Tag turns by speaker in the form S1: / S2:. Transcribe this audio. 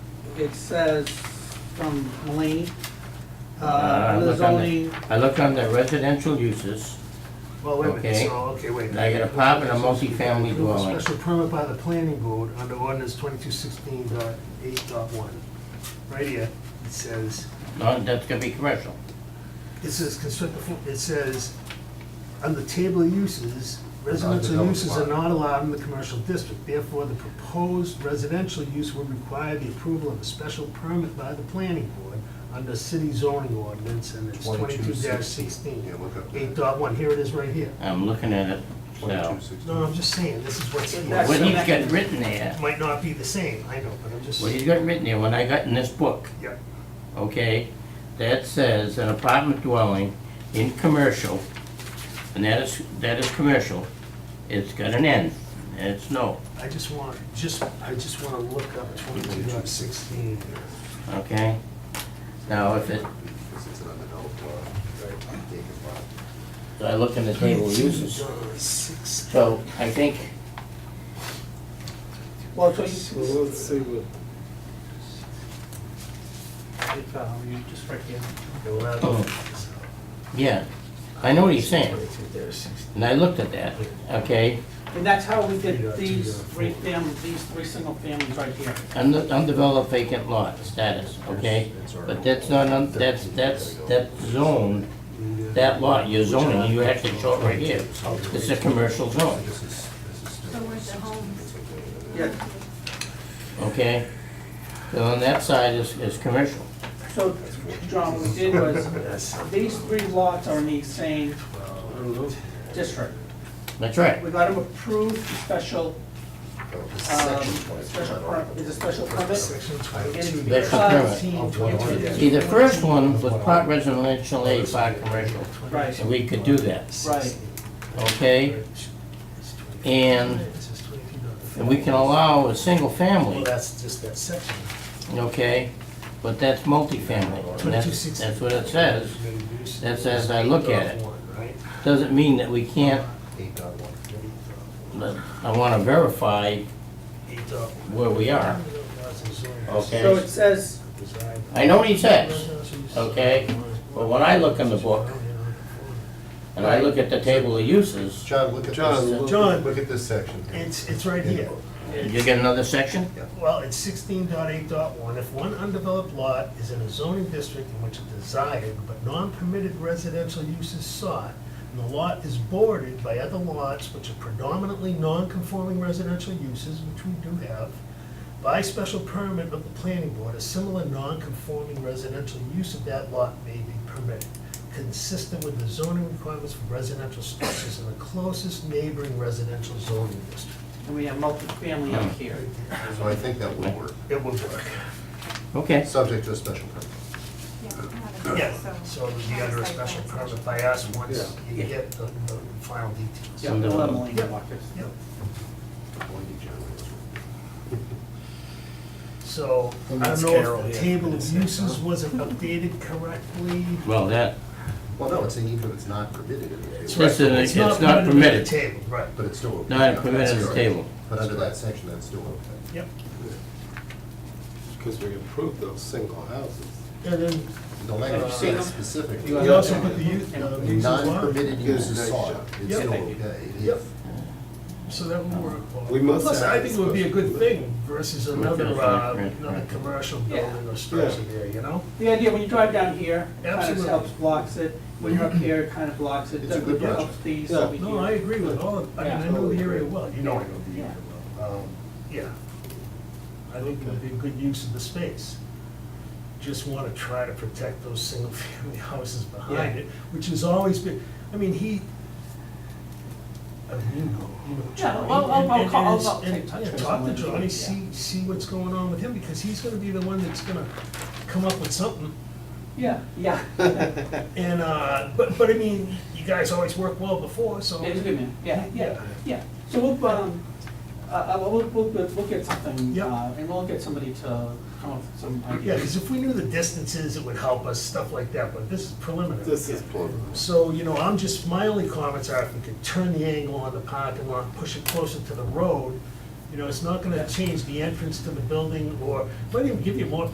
S1: it says from Mulaney,
S2: I
S1: uh, the
S2: look on the-
S1: zoning,
S2: I look under residential uses,
S3: Well, wait a minute,
S2: Okay.
S3: so, okay, wait. a
S2: Now, you got
S3: minute.
S2: a pop and a multifamily
S3: Approve a
S2: dwelling.
S3: Special permit by the planning board under ordinance twenty-two sixteen dot eight dot one. Right here, it says,
S2: no, that's gonna be commercial.
S3: it says construct, it says, under table of uses, residential
S4: developed
S3: uses are
S4: lot.
S3: not allowed in the commercial district. Therefore, the proposed residential use would require the approval of a special permit by the planning board under city zoning ordinance, and it's twenty-two
S4: 2216.
S3: sixteen.
S4: Yeah, look up that.
S3: Eight dot one, here it is right here.
S2: I'm looking at it, so.
S3: No, I'm just saying, this is what's.
S1: That's
S2: What
S1: the
S2: he's
S1: mechanism.
S2: got written there,
S3: Might not be the same, I know, but I'm just,
S2: what he's got written there, when I got in this book,
S3: yep,
S2: okay, that says an apartment dwelling in commercial, and that is, that is commercial, it's got an N, and it's no,
S3: I just want, just, I just want to look up twenty-two dot sixteen.
S2: okay? Now, if it,
S4: Because it's an undeveloped lot, right, untaken lot.
S2: I look in the table of uses,
S3: Six.
S2: so I think,
S1: well, so you,
S5: Well, let's see what,
S1: if, uh, you just right here.
S3: They're allowed to
S2: Oh.
S3: do this.
S2: yeah, I know what he's saying,
S3: 22.16.
S2: and I looked at that, okay?
S1: And that's how we
S3: You
S1: did
S3: got
S1: these
S3: two, uh,
S1: three
S3: four.
S1: fam, these three single families right here.
S2: Unde- Undeveloped vacant lot status, okay? But that's not, un- that's, that's, that zone, that lot, you're zoning, you actually show it right here. It's a commercial zone,
S4: This is, this is
S6: So
S4: still.
S6: where's the home?
S1: Yeah,
S2: okay? So on that side is, is commercial.
S1: so, John, what we did was,
S3: That's something.
S1: these three lots are in the same district.
S2: That's right.
S1: We got them approved, special,
S4: Oh, this is
S1: um,
S4: section
S1: special,
S4: 22.
S1: per- is a special permit.
S3: Section twenty-two.
S2: That's the permit.
S3: Of
S2: See, the first one was part residential A, part commercial,
S1: Right.
S2: and we could do that,
S1: Right.
S2: okay? And- And we can allow a single
S3: Well,
S2: family,
S3: that's just that section.
S2: okay? But that's multifamily, and that's,
S3: 22.16.
S2: that's what it says. That's as I look at it.
S3: Right?
S2: Doesn't mean that we can't
S3: Eight dot one. Eight
S2: But I want to verify
S3: dot
S2: where we are.
S3: one.
S2: Okay.
S1: So it says,
S2: I know what he says, okay? But when I look in the book, and I look at the table of uses,
S4: John, look at this,
S3: John.
S4: look at this section.
S3: It's, it's right here.
S2: you get another section?
S3: Well, it's sixteen dot eight dot one, if one undeveloped lot is in a zoning district in which a desired but non-permitted residential use is sought, and the lot is bordered by other lots which are predominantly non-conforming residential uses, which we do have, by special permit of the planning board, a similar non-conforming residential use of that lot may be permitted, consistent with the zoning requirements for residential structures in the closest neighboring residential zoning district.
S1: and we have multifamily up here.
S4: So I think that would work,
S3: It will work.
S2: Okay.
S4: subject to a special permit.
S3: Yeah, so it would be under a special permit by us once
S4: Yeah.
S3: you get the, the final details.
S1: Yeah, we'll have Mulaney walk us.
S3: Yep.
S4: Blindy John.
S3: So, I don't know if the table of uses wasn't updated correctly.
S2: Well, that,
S4: Well, no, it's even if it's not permitted in the table,
S2: This is- it's not permitted.
S3: Table, right,
S4: but it's still. okay.
S2: not permitted
S4: That's
S2: as a
S4: correct.
S2: table.
S4: But under that section, that's still okay.
S3: yep.
S7: Because we approved those single houses.
S3: And then
S4: The language
S3: Uh,
S4: says specifically.
S3: you also put the use, uh, uses on,
S4: Non-permitted
S7: Good,
S4: uses
S7: nice
S4: sought,
S7: job.
S4: it's
S3: Yep.
S4: still okay.
S3: Yep. so that would work. well.
S7: We must
S3: Plus, I
S7: have
S3: think it would be a good thing versus another,
S2: Right,
S3: uh,
S2: right,
S3: another
S2: right.
S3: commercial building or structure there, you know?
S1: The idea, when you drive down here, it kind of
S3: Absolutely. Mm-hmm.
S1: helps blocks it, when you're up here, it kind of blocks it,
S4: It's a good
S1: it helps these
S7: Yeah.
S1: over
S3: No, I
S1: here.
S3: agree with all, of- I mean, I know the area well, you know I know the
S1: Yeah.
S3: area well. Um, Yeah. I think it would be a good use of the space. Just want to try to protect those single-family houses behind
S1: Yeah.
S3: it, which has always been, I mean, he, I mean, you know, you know.
S1: Yeah,
S3: John,
S1: well, I'll-
S3: and-
S1: I'll
S3: and-
S1: call-
S3: and-
S1: I'll- I'll
S3: and,
S1: take touch
S3: yeah,
S1: with
S3: Talk to
S1: someone,
S3: Johnny,
S1: yeah.
S3: see, see what's going on with him, because he's gonna be the one that's gonna come up with something.
S1: Yeah, yeah,
S3: And, uh, but, but I mean, you guys always worked well before, so.
S1: it's a good man, yeah, yeah,
S3: Yeah.
S1: yeah. So we'll, um, uh, uh, we'll, we'll, we'll we'll get something,
S3: Yeah.
S1: uh, and we'll get somebody to come up with some
S3: Yeah,
S1: ideas.
S3: because if we knew the distances, it would help us, stuff like that, but this is preliminary.
S7: This is preliminary.
S3: So, you know, I'm just, my only comments are if we could turn the angle on the parking lot, push it closer to the road, you know, it's not gonna change the entrance to the building, or, might even give you more